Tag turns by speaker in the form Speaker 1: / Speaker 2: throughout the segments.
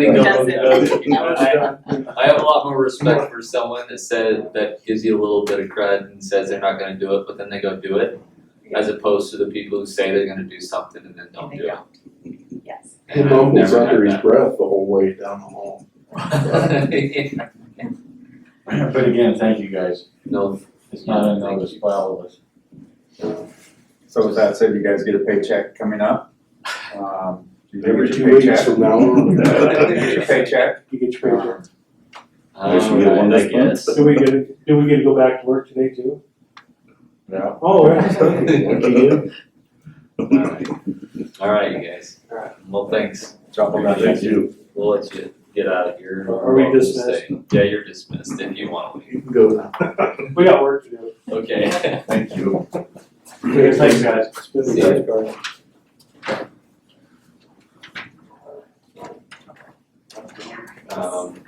Speaker 1: That's it.
Speaker 2: You know, I, I have a lot more respect for someone that said, that gives you a little bit of cred and says they're not gonna do it, but then they go do it. As opposed to the people who say they're gonna do something and then don't
Speaker 1: And
Speaker 2: do
Speaker 1: they
Speaker 2: it.
Speaker 1: Yes.
Speaker 2: And
Speaker 3: Him
Speaker 2: I've
Speaker 3: almost
Speaker 2: never had
Speaker 3: under his
Speaker 2: that.
Speaker 3: breath the whole way down the hall.
Speaker 4: But again, thank you guys.
Speaker 2: No,
Speaker 4: It's not unnoticed by all of us.
Speaker 5: So with that said, you guys get a paycheck coming up. Um, you do
Speaker 3: Every
Speaker 5: get
Speaker 3: two
Speaker 5: your
Speaker 3: weeks
Speaker 5: paycheck.
Speaker 3: from now on.
Speaker 5: You get your paycheck.
Speaker 6: You get your paycheck.
Speaker 5: Um,
Speaker 2: alright,
Speaker 5: we get one
Speaker 2: I
Speaker 5: this month.
Speaker 2: guess.
Speaker 6: Do we get, do we get to go back to work today too?
Speaker 5: Yeah.
Speaker 6: Oh, yeah.
Speaker 2: Alright, alright, you guys.
Speaker 6: Alright.
Speaker 2: Well, thanks,
Speaker 5: Drop on that.
Speaker 3: Thank you.
Speaker 2: we'll let you get out of here.
Speaker 6: Are we
Speaker 2: We'll just
Speaker 6: dismissed?
Speaker 2: stay. Yeah, you're dismissed if you wanna leave,
Speaker 3: You can go now.
Speaker 6: We got work to do.
Speaker 2: okay.
Speaker 5: Thank you.
Speaker 6: Thanks, guys. It's been a
Speaker 2: See ya.
Speaker 6: great guys.
Speaker 2: Um,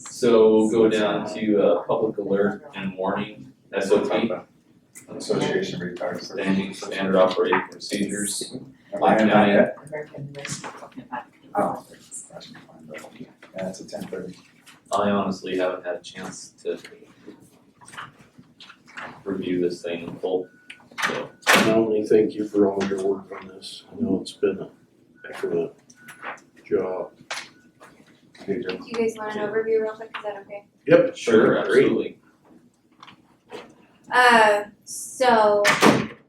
Speaker 2: so we'll go down to, uh, public alert and warning, S O P,
Speaker 5: Association retired.
Speaker 2: standing standard operating procedures.
Speaker 5: I am not yet.
Speaker 1: American Rescue Plan Act.
Speaker 5: Oh. Yeah, it's a ten thirty.
Speaker 2: I honestly haven't had a chance to review this thing in full, so,
Speaker 3: I only thank you for all your work on this. I know it's been a heck of a job.
Speaker 7: Do you guys want an overview real quick, is that okay?
Speaker 3: Yep.
Speaker 2: sure,
Speaker 3: Great.
Speaker 2: absolutely.
Speaker 7: Uh, so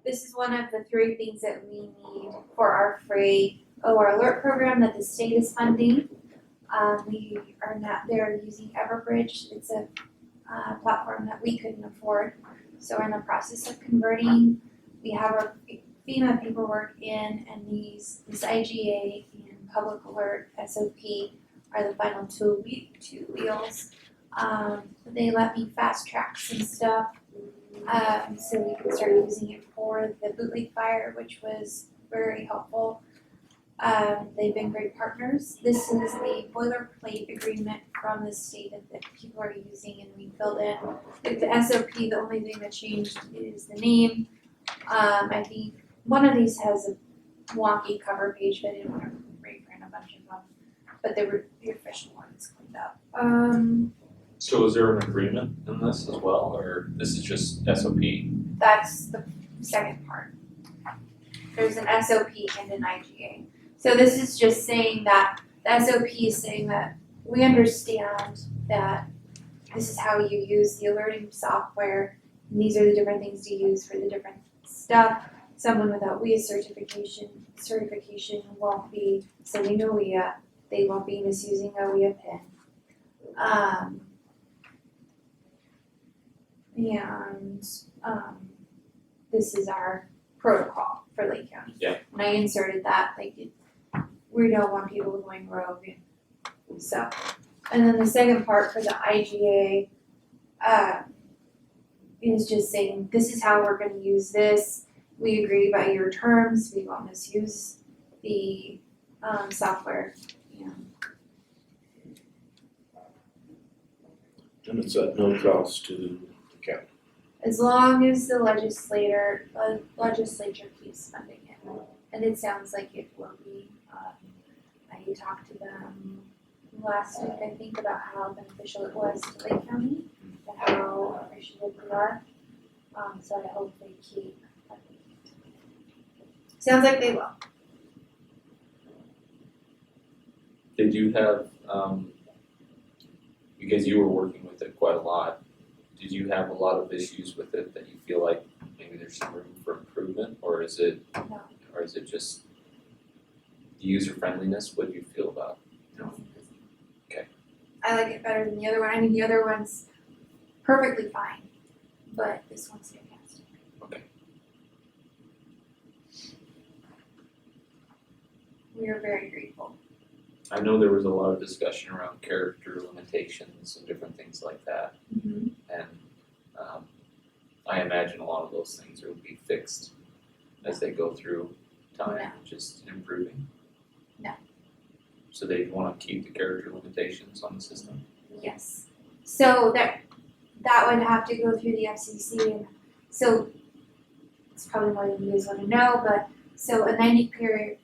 Speaker 7: this is one of the three things that we need for our free OR alert program that the state is funding. Um, we are not there using Everbridge. It's a uh, platform that we couldn't afford. So we're in the process of converting. We have our FEMA paperwork in and these, this IGA and public alert SOP are the final two we, two wheels. Um, they let me fast track some stuff um, so we could start using it for the bootleg fire, which was very helpful. Um, they've been great partners. This is the boilerplate agreement from the state that, that people are using and we filled in. Like the SOP, the only thing that changed is the name. Um, I think one of these has a wonky cover page, but I didn't want to reprint a bunch of them. But they were, the official ones cleaned up. Um,
Speaker 2: So is there an agreement in this as well, or this is just S O P?
Speaker 7: That's the second part. There's an SOP and an IGA. So this is just saying that, the SOP is saying that we understand that this is how you use the alerting software. And these are the different things to use for the different stuff. Someone without WIA certification, certification won't be sending a WIA, they won't be misusing a WIA pin. Um. And um, this is our protocol for Lake County.
Speaker 2: Yeah.
Speaker 7: When I inserted that, like, it, we don't want people going rogue and so. And then the second part for the IGA, uh, is just saying, this is how we're gonna use this. We agree by your terms, we won't misuse the, um, software, and
Speaker 3: And it's at no cost to the county.
Speaker 7: as long as the legislator, uh, legislature keeps funding it. And it sounds like it will be, um, I talked to them last week, I think, about how beneficial it was to Lake County, and how appreciative we are. Um, so I hope they keep funding it. Sounds like they will.
Speaker 2: They do have, um, because you were working with it quite a lot, did you have a lot of issues with it that you feel like maybe there's some room for improvement, or is it,
Speaker 7: No.
Speaker 2: or is it just user friendliness, what do you feel about? Okay.
Speaker 7: I like it better than the other one, I mean, the other one's perfectly fine, but this one's fantastic.
Speaker 2: Okay.
Speaker 7: We are very grateful.
Speaker 2: I know there was a lot of discussion around character limitations and different things like that. And um, I imagine a lot of those things will be fixed as they go through time, just improving.
Speaker 7: No.
Speaker 2: So they want to keep the character limitations on the system.
Speaker 7: Yes. So that that would have to go through the FCC and so it's probably more than you guys wanna know, but so a ninety period